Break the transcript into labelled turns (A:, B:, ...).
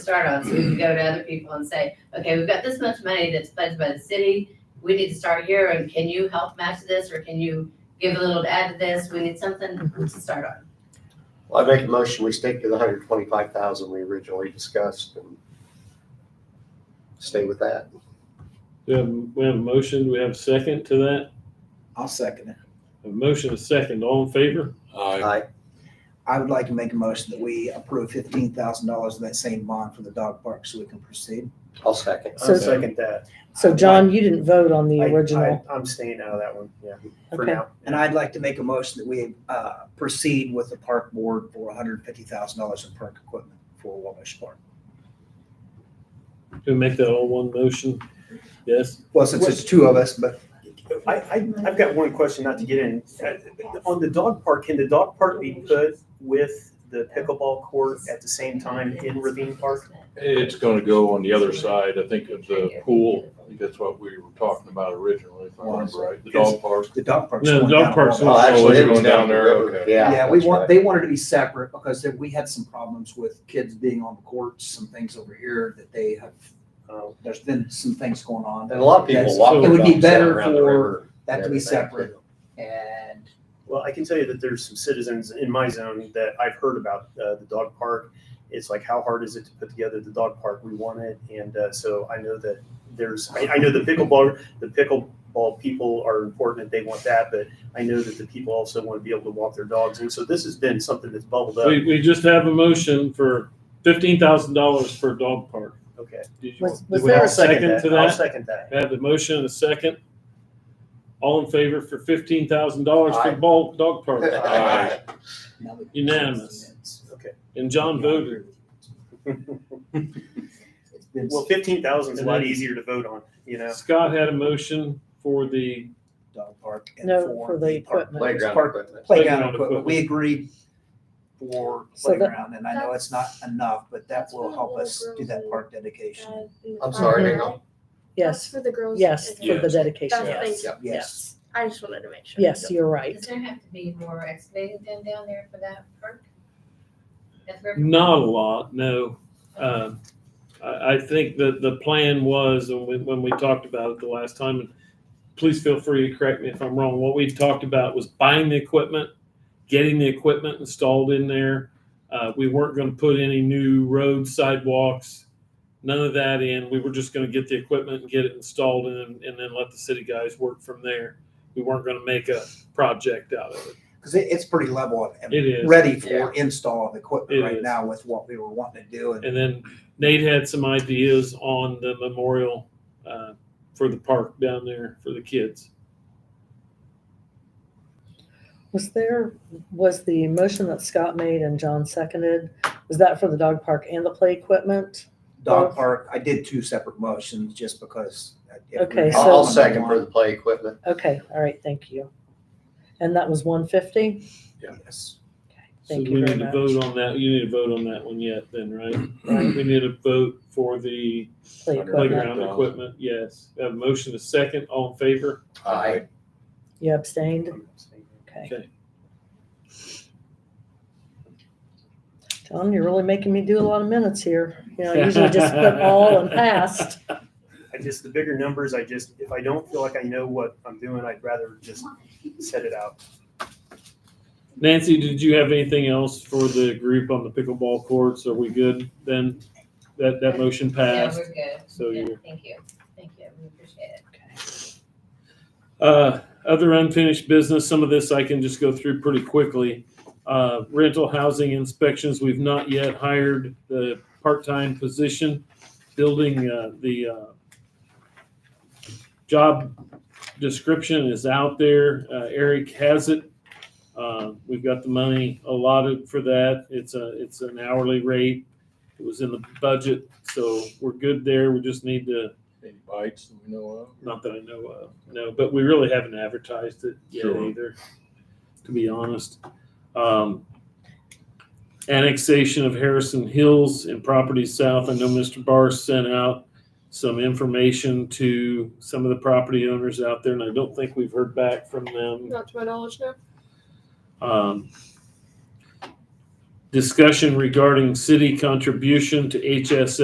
A: start on, so we can go to other people and say, okay, we've got this much money that's pledged by the city, we need to start here, and can you help match this, or can you give a little to add to this, we need something to start on.
B: Well, I make a motion, we stick to the hundred twenty-five thousand we originally discussed and stay with that.
C: We have, we have a motion, we have a second to that,
D: I'll second it.
C: a motion, a second, all in favor?
E: Aye.
B: Aye,
D: I would like to make a motion that we approve fifteen thousand dollars of that same bond for the dog park so we can proceed.
B: I'll second.
F: So-
G: I'll second that.
F: So
D: I'd
F: John, Um, you didn't vote on the
G: I-
F: original.
G: I- I'm staying out of that one, yeah, for
F: Okay.
G: now.
D: And I'd like to make a motion that we uh, proceed with the park board for hundred and fifty thousand dollars in park equipment for Wabash Park.
C: Can we make that all one motion? Yes,
D: Well, since it's two of us, but
G: I, I, I've got one question, not to get in. Uh, On the dog park, can the dog park be put with the pickleball court at the same time in Ravine Park?
E: It's gonna go on the other side, I think of the pool, I think that's what we were talking about originally, if I remember right, the dog park.
D: the dog park's.
C: No, the
D: going
C: dog
D: down.
C: park's
B: Well, Oh, actually,
E: you're
B: it was
E: going down
B: the
E: there,
B: river.
E: okay.
B: Yeah.
D: Yeah, we
B: that's
D: want,
B: right.
D: they wanted to be separate because there- we had some problems with kids being on the courts, and things over here that they have,
G: Uh,
D: there's been some things going on.
B: And a lot of people
D: That's-
B: walk.
C: so-
B: their
C: It
D: would be
B: dogs down
D: better
B: around the
D: for
B: river
D: That to be
B: and everything,
D: separate
B: too.
D: and
G: Well, I can tell you that there's some citizens in my zone that I've heard about uh, the dog park. It's like, how hard is it to put together the dog park? We want it, and uh, so I know that there's. I, I know the pickleball, the pickleball people are important, and they want that. But I know that the people also want to be able to walk their dogs, and so this has been something that's bubbled up.
C: we, we just have a motion for fifteen thousand dollars for a dog park.
G: Okay,
C: Did you-
F: Was-
C: do
F: was
C: we have
F: there
C: a
F: a-
C: Second to
G: I'll
C: that?
G: second that.
C: I Have the motion and a second. All in favor for fifteen thousand dollars for
B: Aye.
C: ball, dog park?
E: Aye.
D: now we-
C: Unanimous. And John
D: Yeah, I
C: voted.
D: agree with you. It's been-
G: Well, fifteen thousand is a lot easier to vote on, you know.
C: Scott had a motion for the,
D: dog park. and
F: No, for the
D: park-
F: equipment.
B: Playground
D: Park-
B: equipment.
C: Playground
D: Playground equipment,
C: equipment.
D: we agreed for
F: So that-
D: playground, and I know it's not enough, but that
H: That's
D: will
H: for
D: help
H: all
D: us do that
H: girls
D: park dedication.
B: I'm sorry, hang on.
H: That's
F: Yes,
H: Uh, for the girls.
F: yes,
H: and
F: for the
H: girls.
F: dedication.
H: That's
B: Yeah.
H: basic.
F: uh,
B: Yep.
D: Yes,
H: I just wanted to make sure.
F: Yes, you're right.
A: Does there have to be more excavating done down there for that perk? That's where-
C: not a lot, no. Um, I, I think that the plan was, and when, when we talked about it the last time, and please feel free to correct me if I'm wrong, what we talked about was buying the equipment, getting the equipment installed in there. Uh, we weren't gonna put any new roads, sidewalks, none of that in. We were just gonna get the equipment and get it installed and, then- and then let the city guys work from there. We weren't gonna make a project out of it.
D: because it, it's pretty level and
C: It is.
D: ready
B: Yeah.
D: for install of
C: It
D: equipment right
C: is.
D: now with what we were wanting to do, and
C: And then Nate had some ideas on the memorial uh, for the park down there for the kids.
F: Was there, was the motion that Scott made and John seconded, was that for the dog park and the play equipment?
D: dog park, I did two separate motions just because. if we
F: Okay,
D: had
B: I'll I'll
F: So-
B: second for the play equipment.
F: Okay, all right, thank you. And that was one fifty?
D: Yes.
C: So
F: Thank
C: we
F: you
C: need
F: very
C: to
F: much.
C: vote on that. You need to vote on that one yet then, right? We need to vote for the
F: Play equipment.
C: playground equipment, yes. We Have a motion to second, all in favor?
B: Aye.
F: You abstained? Okay.
C: Okay.
F: John, you're really making me do a lot of minutes here. You know, I usually just put all and past.
G: I just, the bigger numbers, I just, if I don't feel like I know what I'm doing, I'd rather just set it out.
C: Nancy, did you have anything else for the group on the pickleball courts? Are we good then? That, that motion
A: Yeah,
C: passed?
A: we're good.
C: So
A: Yeah,
C: you're-
A: Thank you, thank you, we appreciate it.
C: Uh, Other unfinished business, some of this I can just go through pretty quickly. Uh, Rental housing inspections, we've not yet hired the part-time position. Building, uh, the uh, job description is out there. Uh, Eric has it. Uh, We've got the money allotted for that. It's a, it's an hourly rate. It was in the budget, so we're good there. We just need to
E: Any bites that we know of?
C: not that I know of, no, but we really haven't advertised it yet
E: Sure.
C: either, to be honest. Um, annexation of Harrison Hills and property south. I know Mr. Barr sent out some information to some of the property owners out there, and I don't think we've heard back from them.
H: Not to my knowledge, no.
C: Um, discussion regarding city contribution to HSA